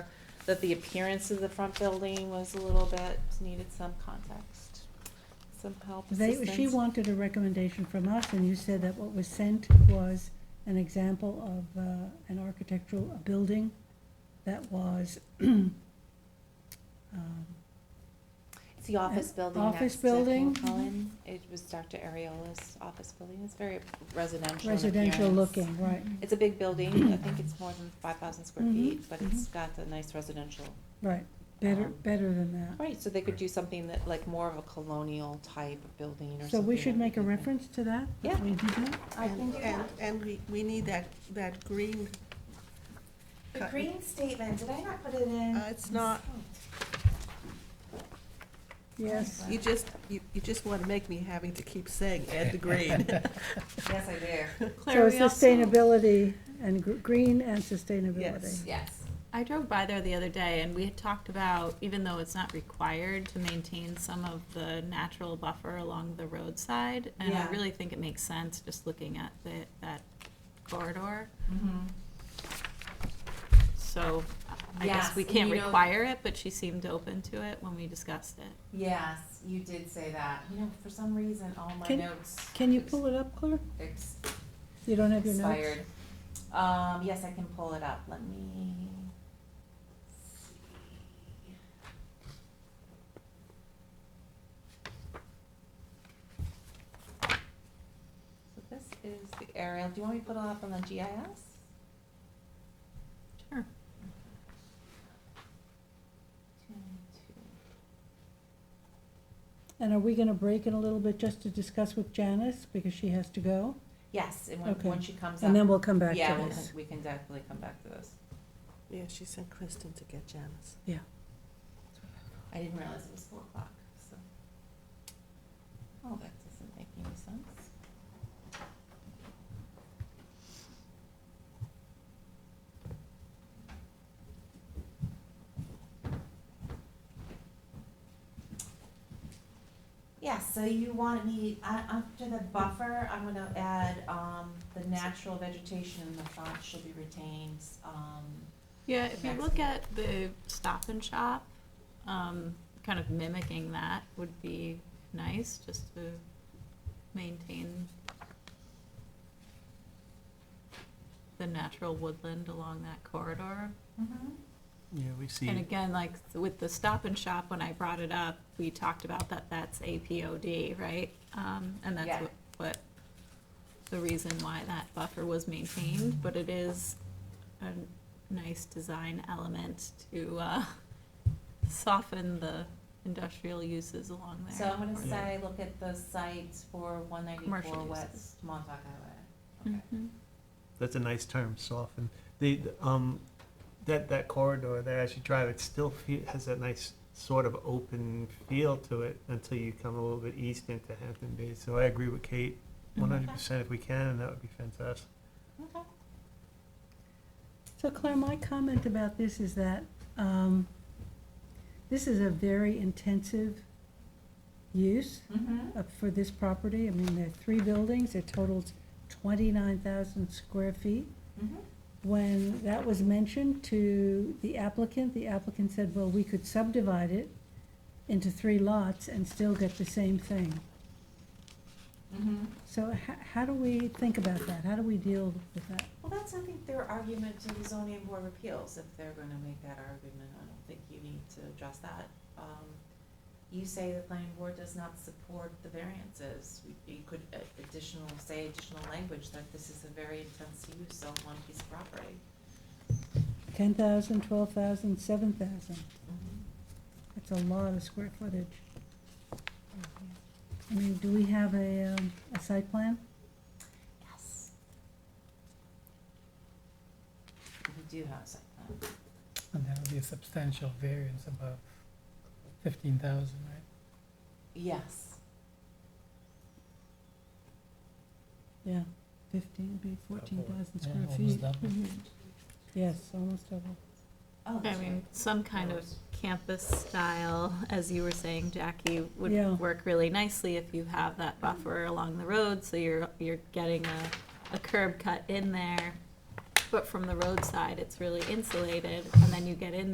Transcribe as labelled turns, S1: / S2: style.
S1: that the appearance of the front building was a little bit, needed some context, some help,
S2: They, she
S1: assistance.
S2: wanted a recommendation from us, and you said that what was sent was an example of uh, an architectural building that was. um,
S1: It's the office
S2: An
S1: building
S2: uh, office
S1: next to
S2: building. mm-hmm.
S1: King Cullen. It was Dr. Ariola's office building. It's very residential in
S2: Residential
S1: appearance.
S2: looking, right,
S1: It's a big building. I think it's more than five thousand square
S2: Mhm,
S1: feet, but it's got a nice residential.
S2: right, better,
S1: Um,
S2: better than that.
S1: Right, so they could do something that, like, more of a colonial type of building or something.
S2: So we
S1: that
S2: should make a
S1: could-
S2: reference to that? that
S1: Yeah.
S2: we do that?
S3: I can do that. And we, we need that, that green,
S4: The
S3: Cut.
S4: green statement, did I not put it in?
S3: Uh, it's not-
S2: Yes,
S3: you just, you, you just want to make me having to keep saying add the green.
S4: Yes, I do.
S2: so
S5: Claire, we also-
S2: sustainability and gr- green and sustainability.
S3: Yes.
S4: Yes.
S5: I drove by there the other day and we had talked about, even though it's not required to maintain some of the natural buffer along the roadside. And I
S4: Yeah.
S5: really think it makes sense, just looking at the, that corridor.
S1: Mm-hmm.
S5: So I
S4: Yes,
S5: guess we
S4: and
S5: can't
S4: you know-
S5: require it, but she seemed open to it when we discussed it.
S4: Yes, you did say that. You know, for some reason, all my
S2: Can-
S4: notes.
S2: Can you pull it up, Claire?
S4: Ex-
S2: You don't have your notes?
S4: expired. Um, yes, I can pull it up. Let me. see. So this is the aerial. Do you want me to put it up on the GIS?
S5: Sure.
S2: And are we gonna break in a little bit just to discuss with Janice, because she has to go?
S4: Yes, and when,
S2: Okay.
S4: when she comes up.
S2: And then we'll come back
S4: Yeah,
S2: to
S4: we'll-
S2: this.
S4: we can definitely come back to this.
S3: Yeah, she sent Kristen to get Janice.
S4: I didn't realize it was four o'clock, so. Oh, that doesn't make any sense. Yeah, so you want me, uh, after the buffer, I'm gonna add, um, the natural vegetation in the front should be retained, um,
S5: Yeah, if you
S4: Next.
S5: look at the Stop and Shop, um, kind of mimicking that would be nice, just to maintain the natural woodland along that corridor.
S4: Mm-hmm.
S6: Yeah, we see.
S5: And again, like with the Stop and Shop, when I brought it up, we talked about that that's APOD, right? Um, and
S4: Yeah.
S5: that's what, what, the reason why that buffer was maintained, but it is a nice design element to, uh, soften the industrial uses along
S4: So
S5: there.
S4: I'm gonna
S6: Yeah.
S4: say, look at the sites for one ninety-four
S5: Commercial
S4: West
S5: uses.
S4: Montauk Highway. Okay.
S5: Mhm.
S6: Mm-hmm. That's a nice term, soften. The, the, um, that, that corridor there, as you drive, it still fe- has that nice sort of open feel to it until you come a little bit east into Hampton Bays. So I agree with Kate, one hundred percent if we can, that would be fantastic.
S4: Okay.
S2: So Claire, my comment about this is that um, this is a very intensive use
S4: Mm-hmm.
S2: uh, for this property. I mean, there are three buildings, it totals twenty-nine thousand square feet.
S4: Mm-hmm.
S2: When that was mentioned to the applicant, the applicant said, well, we could subdivide it into three lots and still get the same thing.
S4: Mm-hmm.
S2: So h- how do we think about that? How do we deal with that?
S4: Well, that's, I think, their argument to the zoning board of appeals, if they're gonna make that argument, I don't think you need to address that. Um, you say the planning board does not support the variances, you could uh, additional, say additional language that this is a very intense use on one piece of property.
S2: Ten thousand, twelve thousand, seven thousand? That's a lot of square footage. I mean, do we have a, um, a site plan?
S4: Yes. Mm-hmm. We do have a site plan.
S7: And that would be a substantial variance above fifteen thousand, right?
S4: Yes.
S2: Yeah. Fifteen, be fourteen thousand
S7: Yeah,
S2: square
S7: almost
S2: feet.
S7: double.
S2: Yes, almost double.
S4: Oh,
S5: Mm-hmm. I
S4: that's
S5: mean,
S4: right.
S5: some kind of campus style, as you were saying, Jackie, would
S2: Yeah.
S5: work really nicely if you have that buffer along the road, so you're, you're getting a, a curb cut in there. But from the roadside, it's really insulated, and then you get in